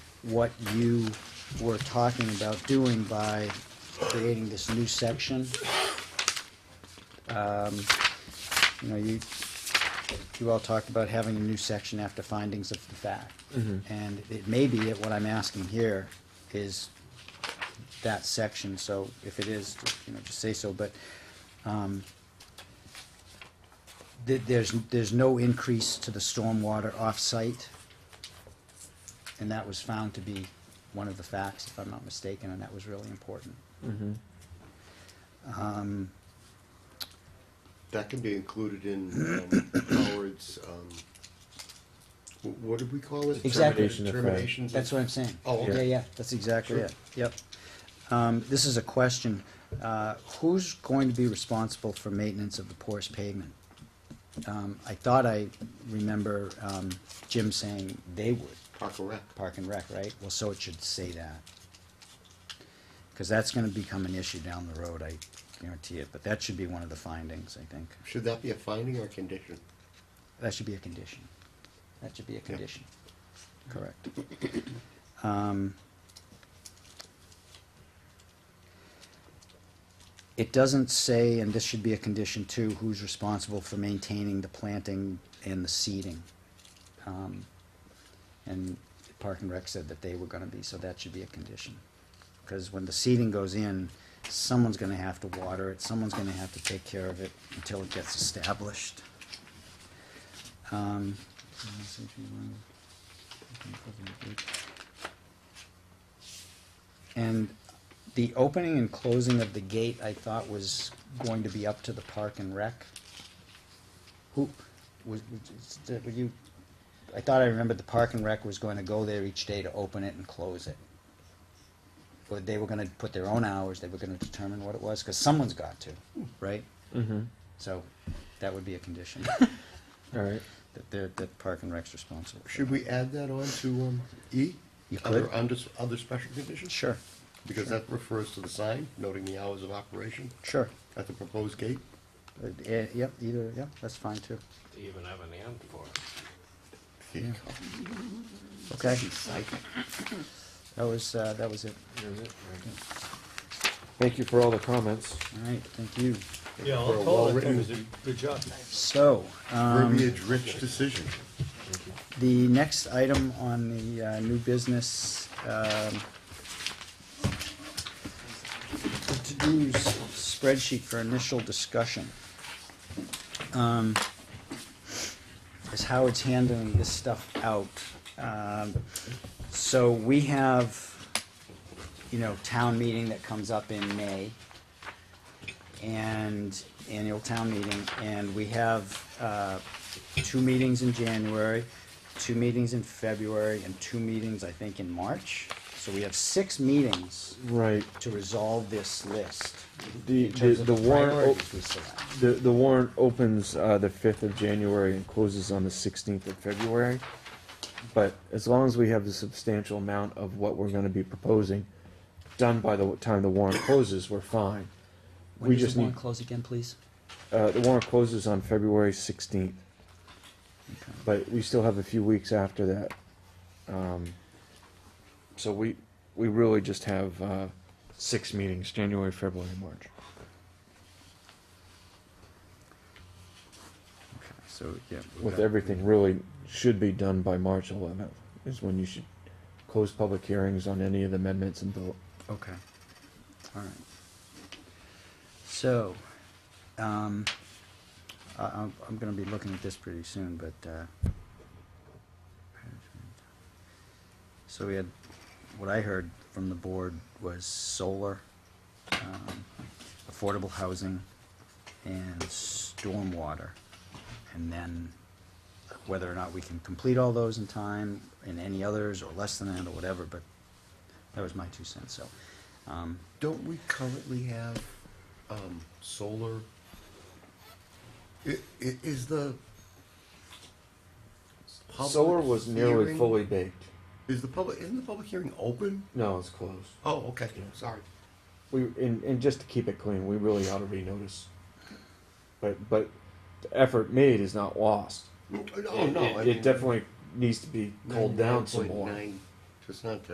what you were talking about doing by creating this new section. Um, You know, you, you all talked about having a new section after findings of the fact. And it may be that what I'm asking here is that section, so if it is, you know, just say so, but, um, th- there's, there's no increase to the stormwater off-site, and that was found to be one of the facts, if I'm not mistaken, and that was really important. Um, That can be included in um, Howard's, um, wh- what did we call it? Exactly. Termination- Terminations. That's what I'm saying. Oh, okay. Yeah, yeah, that's exactly Sure. it, yep. Um, this is a question, uh, who's going to be responsible for maintenance of the porous pavement? Um, I thought I remember, um, Jim saying they would, Park and Rec. Park and Rec, right? Well, so it should say that. Cause that's gonna become an issue down the road, I guarantee it, but that should be one of the findings, I think. Should that be a finding or a condition? That should be a condition. That should be a condition. Correct. Um, It doesn't say, and this should be a condition too, who's responsible for maintaining the planting and the seeding. Um, And Park and Rec said that they were gonna be, so that should be a condition. Because when the seeding goes in, someone's gonna have to water it, someone's gonna have to take care of it until it gets established. Um, let's see if you want- I can put them good. And the opening and closing of the gate, I thought was going to be up to the park and rec. Who, was, was, were you, I thought I remembered the park and rec was going to go there each day to open it and close it. Or they were gonna put their own hours, they were gonna determine what it was, cause someone's got to, right? Mm-hmm. So, that would be a condition. All right. That they're, that Park and Rec's responsible. for Should that. we add that on to um, E? You Other, could. under, other special conditions? Sure, Because that refers to the sign noting the hours of operation sure. at the proposed gate. Uh, eh, Yep, either, yep, that's fine too. They even have an end for it. Yeah. Okay, Psych. that was, uh, that was it. Here's it. Thank you for all the comments. All right, thank you. Yeah, For a all told, I think it well-written- was a good job. So, um, Verbiage-rich decision. the next item on the, uh, new business, um, the to-dos spreadsheet for initial discussion. Um, is Howard's handling this stuff out. Um, so we have, you know, town meeting that comes up in May and annual town meeting, and we have, uh, two meetings in January, two meetings in February, and two meetings, I think, in March. So we have six meetings Right. to resolve this list. The in the, terms of the warrant oh, priorities we select. o- the, the warrant opens uh, the fifth of January and closes on the sixteenth of February. But as long as we have a substantial amount of what we're going to be proposing done by the time the warrant closes, we're fine. we just need close again, please? uh, the warrant closes on February sixteenth. But we still have a few weeks after that. Um, so we, we really just have, uh, six meetings, January, February, March. Okay, so, yeah. we've With got- everything really should be done by March eleventh, is when you should close public hearings on any of the amendments and vote. Okay, all right. So, um, I, I'm, I'm gonna be looking at this pretty soon, but, uh, so we had, what I heard from the board was solar, um, affordable housing, and stormwater. And then whether or not we can complete all those in time, and any others, or less than that, or whatever, but that was my two cents, so, um, Don't we currently have, um, solar? I- i- is the. public hearing- baked. Is the public, isn't the public hearing open? No, it's closed. Oh, okay, sorry. We, and, and just to keep it clean, we really ought to renotice. But, but the effort made is not lost. Oh, It- no, it- I It mean- definitely needs to be culled down some more. 99.9, Just not that.